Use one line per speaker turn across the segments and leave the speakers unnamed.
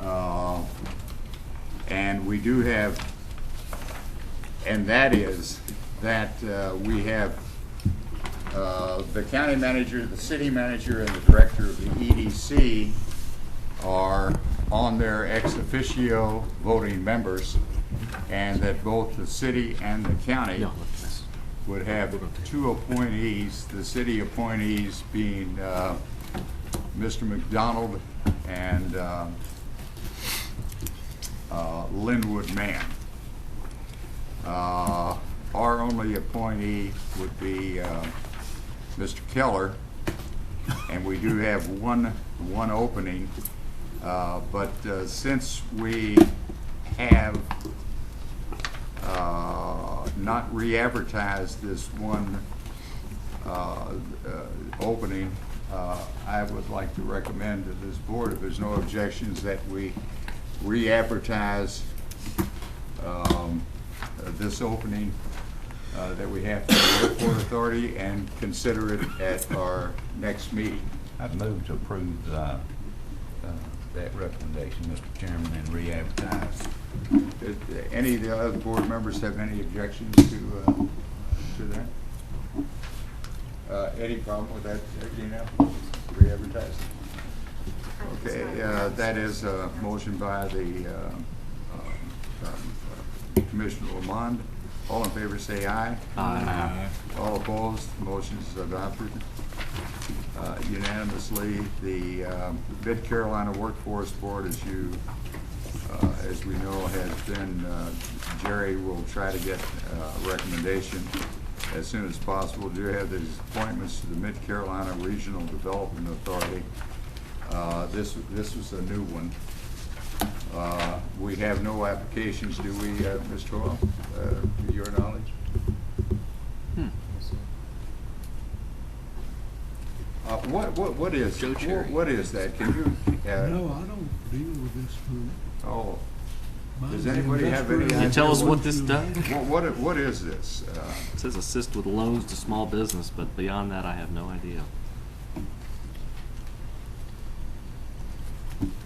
Uh, And we do have, and that is that uh, we have uh, the county manager, the city manager, and the director of the EDC are on their ex officio voting members, and that both the city and the county would have two appointees, the city appointees being uh, Mr. McDonald and um, uh, Linwood Mann. Uh, Our only appointee would be uh, Mr. Keller, and we do have one, one opening. Uh, But uh, since we have uh, not re-advertised this one uh, uh, opening, uh, I would like to recommend to this board, if there's no objections, that we re-advertise um, uh, this opening uh, that we have for the airport authority and consider it at our next meeting.
I'd move to approve uh, uh, that recommendation, Mr. Chairman, and re-advertise.
Did Any of the other board members have any objections to, uh, to that? Uh, Any problem with that, Gina? Re-advertise? Okay, uh, that is a motion by the uh, um, Commissioner Lamond. All in favor, say aye.
Aye.
All opposed, motion is adopted uh, unanimously. The um, Mid Carolina Workforce Board, as you, uh, as we know, has been, uh, Jerry will try to get uh, a recommendation as soon as possible. Do you have these appointments to the Mid Carolina Regional Development Authority? Uh, This, this was a new one. Uh, We have no applications, do we, uh, Ms. Toyle, uh, to your knowledge? Uh, What, what, what is,
Joe Cherry.
what is that? Can you, uh,
No, I don't deal with this one.
oh, Does
Mine's an
anybody have any
industrial-
Can you tell
us what this does?
wha- what, what is this? Uh,
It says assist with loans to small business, but beyond that, I have no idea.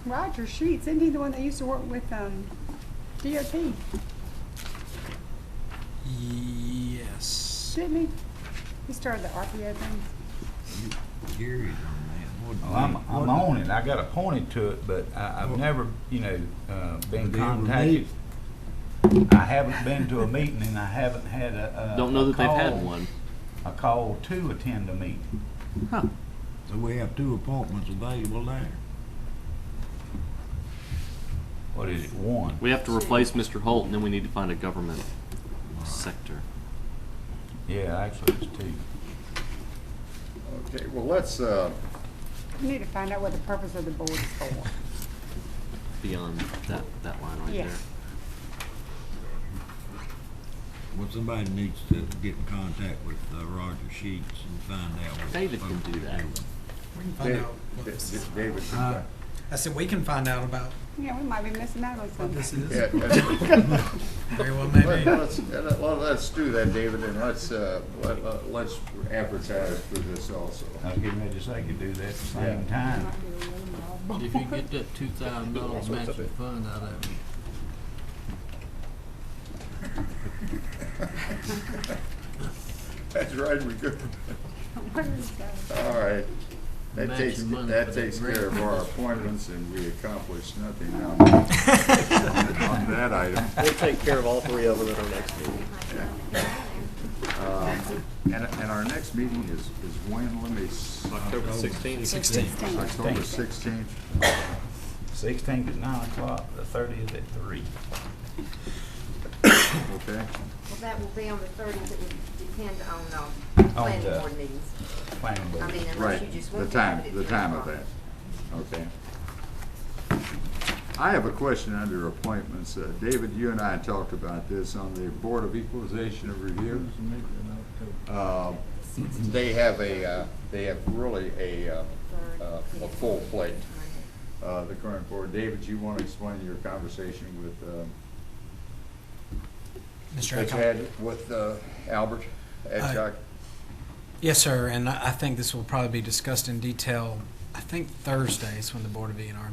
Roger Sheets, isn't he the one that used to work with um, DOT?
Yes.
Didn't he? He started the RPO thing.
Gary's on that.
Well, I'm, I'm on it, I got appointed to it, but I, I've never, you know, uh, been
They were
contacted. I haven't been to a meeting and I haven't had a, a.
Don't know that they've
a
had
call-
one.
A call to attend a meeting.
Huh.
So we have two appointments available there.
What is it, one?
We have to replace Mr. Holt, and then we need to find a government sector.
Yeah, actually, it's two.
Okay, well, let's, uh,
We need to find out what the purpose of the board is for.
Beyond that, that line right
Yeah.
there.
Well, somebody needs to get in contact with uh, Roger Sheets and find out. what-
David can do that.
We can find
David,
out. what this is.
David,
Uh, I said, we can find out about
Yeah, we might be missing out on
what
something.
this is.
yeah, yeah.
Very well,
Let-
maybe.
let's, let- well, let's do that, David, and let's, uh, let- let- let's advertise for this also.
I was getting ready to say, could do that at the same
Yeah.
time.
If you get that two thousand dollars matching fund out of it,
That's right, we could.
Where is that?
All right. That
Match
takes,
the money
that
for that
takes
grant.
care of our appointments, and we accomplished nothing on on that item.
We'll take care of all three of them at our next meeting.
Um, And, and our next meeting is, is when, let me, s-
October sixteenth.
Sixteen.
October sixteenth?
Sixteenth is nine o'clock, the thirtieth at three.
Okay.
Well, that will be on the thirtieth, it would depend on, uh,
the-
planning board meetings.
Planning board.
I mean,
Right,
unless you just
the
want to have it
time,
at
the
three
time of
o'clock.
that, okay. I have a question under appointments. Uh, David, you and I talked about this on the Board of Equalization and Review. Uh, They have a, uh, they have really a, uh, uh, a full plate, uh, the current board. David, you want to explain your conversation with, uh, that
Mr.
you
Adcock.
had with uh, Albert Edcock?
Yes, sir, and I I think this will probably be discussed in detail, I think Thursday is when the Board of E and R